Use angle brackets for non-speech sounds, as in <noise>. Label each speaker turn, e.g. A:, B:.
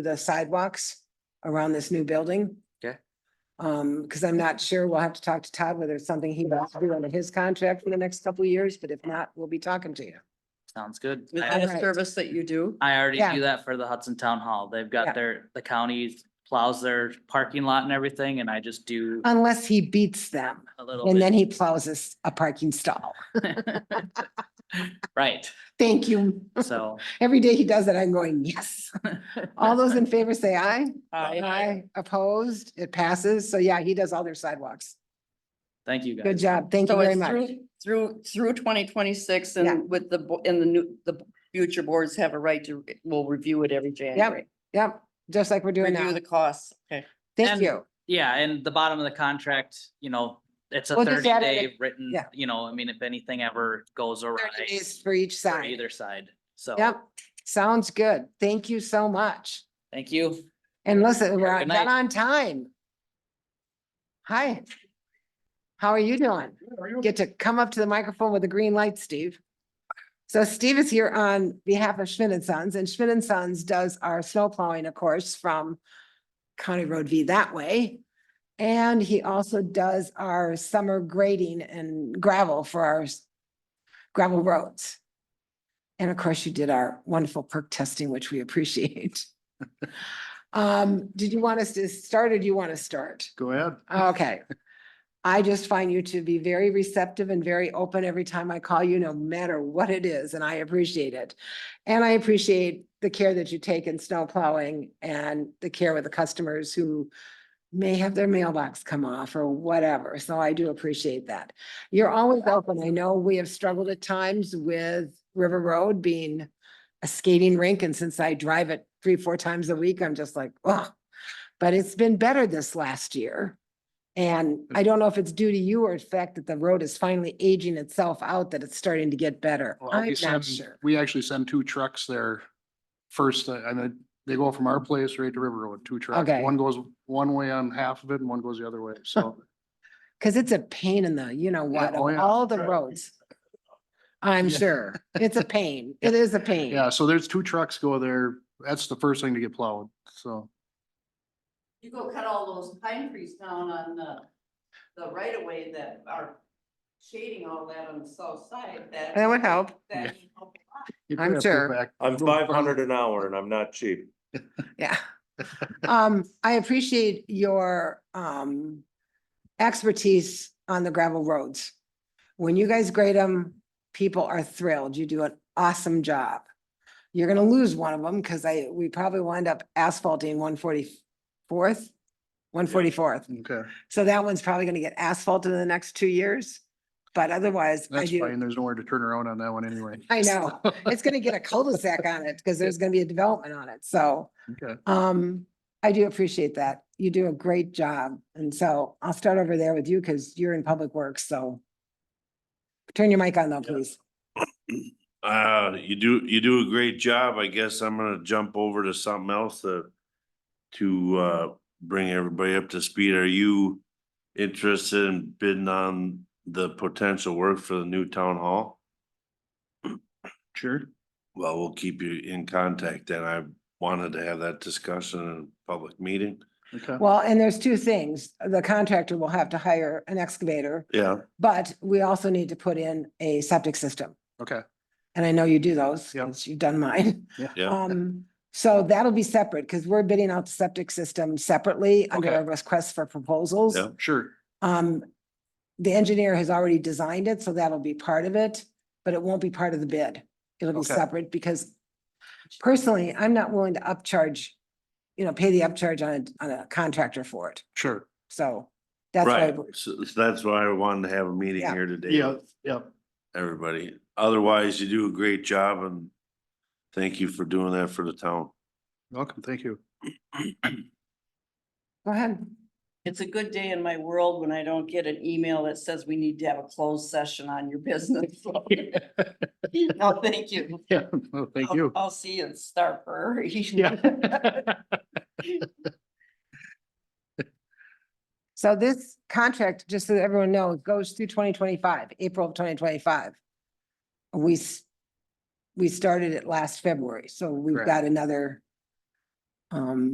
A: the sidewalks around this new building.
B: Okay.
A: Um, because I'm not sure, we'll have to talk to Todd whether it's something he wants to do under his contract for the next couple of years, but if not, we'll be talking to you.
B: Sounds good.
C: Is
B: I
C: that
A: Alright.
C: a service that you do?
B: I already
A: Yeah.
B: do that for the Hudson Town Hall. They've
A: Yeah.
B: got their, the county plows their parking lot and everything and I just do
A: Unless he beats them
B: a little
A: Uh, and then
B: bit.
A: he plows us a parking stall.
B: <laughs>
A: <laughs>
B: Right,
A: Thank you.
B: so.
A: Every day he does it, I'm going,
C: <laughs>
A: yes. All those in favor say aye. Aye. Opposed, it passes. So yeah, he does all their sidewalks.
B: Thank you guys.
A: Good job. Thank you
C: So
A: very
C: it's
A: much.
C: through, through, through twenty twenty-six
A: Yeah.
C: and with the, bo- and the new, the future boards have a right to, will review it every January.
A: Yep, just like we're doing
C: Review
A: now.
C: the costs. Okay.
A: Thank
B: and-
A: you.
B: Yeah, and the bottom of the contract, you know, it's a
A: We'll just
B: thirty
A: add it-
B: day written,
A: yeah.
B: you know, I mean, if anything ever goes awry.
A: Thirty days for each
B: for
A: side.
B: Either side, so.
A: Yep, sounds good. Thank you so much.
B: Thank you.
A: And listen, we're
B: good
A: on-
B: night.
A: not on time. Hi. How are you doing? Get to come up to the microphone with a green light, Steve. So Steve is here on behalf of Schmidt and Sons, and Schmidt and Sons does our snow plowing, of course, from County Road V that way. And he also does our summer grading and gravel for our s- gravel roads. And of course, you did our wonderful perk testing, which we appreciate. Um, did you want us to start or do you want to start?
D: Go ahead.
A: Okay. I just find you to be very receptive and very open every time I call you, no matter what it is, and I appreciate it. And I appreciate the care that you take in snow plowing and the care with the customers who may have their mailbox come off or whatever, so I do appreciate that. You're always open. I know we have struggled at times with River Road being a skating rink, and since I drive it three, four times a week, I'm just like, oh. But it's been better this last year. And I don't know if it's due to you or the fact that the road is finally aging itself out, that it's starting to get better.
D: Well, we
A: I'm not
D: send-
A: sure.
D: We actually send two trucks there first, uh, and then they go from our place right to River Road, two trucks.
A: Okay.
D: One goes one way on half of it and one goes the
A: <laughs>
D: other way, so.
A: Cause it's a pain in the, you know what,
D: oh
A: of
D: yeah,
A: all the
D: right.
A: roads. I'm
D: Yeah.
A: sure. It's
D: <laughs>
A: a pain. It is a pain.
D: Yeah, so there's two trucks go there. That's the first thing to get plowed, so.
C: You go cut all those pine trees down on the, the right of way that are shading all that on the south side.
A: That would help.
D: that
A: I'm
D: you could have to go
A: sure.
D: back-
E: I'm
D: go back
E: five hundred an hour and I'm not cheap.
D: <laughs>
A: Yeah. Um, I appreciate your, um, expertise on the gravel roads. When you guys grade them, people are thrilled. You do an awesome job. You're gonna lose one of them because I, we probably wind up asphalting one forty-fourth, one forty-fourth.
D: Okay,
A: So that one's probably gonna get asphalted in the next two years. But otherwise, I
D: that's
A: do,
D: fine. There's nowhere to turn around on that one anyway.
A: I
D: <laughs>
A: know. it's gonna get a cul-de-sac on it because there's gonna be a development on it. So
D: Okay,
A: um, I do appreciate that. You do a great job. And so I'll start over there with you because you're in public works, so. Turn your mic on though,
E: Yeah.
A: please.
E: Uh, you do, you do a great job. I guess I'm gonna jump over to something else to to uh bring everybody up to speed. Are you interested in bidding on the potential work for the new town hall?
D: sure.
E: Well, we'll keep you in contact and I wanted to have that discussion in a public meeting.
D: Okay.
A: Well, and there's two things. The contractor will have to hire an excavator,
E: Yeah,
A: but we also need to put in a septic system.
D: Okay.
A: And I know you do those,
D: Yep.
A: since you've done mine.
E: yeah.
A: Um, so that'll be separate because we're bidding out the septic system separately under
D: Okay.
A: a request for proposals.
E: Yeah.
D: Sure,
A: Um, the engineer has already designed it, so that'll be part of it, but it won't be part of the bid. It'll be
D: Okay.
A: separate because personally, I'm not willing to upcharge, you know, pay the upcharge on a, on a contractor for it.
D: sure.
A: So that's why,
E: Right,
A: we-
E: so so that's why I wanted to have a meeting
A: Yeah.
E: here today.
D: Yeah, yeah.
E: everybody. Otherwise, you do a great job and thank you for doing that for the town.
D: Welcome, thank
A: <laughs>
D: you.
A: go ahead.
C: It's a good day in my world when I don't get an email that says we need to have a closed session on your business. <laughs>
A: <laughs>
C: No, thank you.
D: <laughs> Yeah, no, thank
A: <laughs>
C: I'll-
D: you.
C: I'll see you in Starper. <laughs>
D: Yeah.
A: So this contract, just so that everyone knows, goes through twenty twenty-five, April of twenty twenty-five. We, s- we started it last February, so we've
D: Correct.
A: got another Um,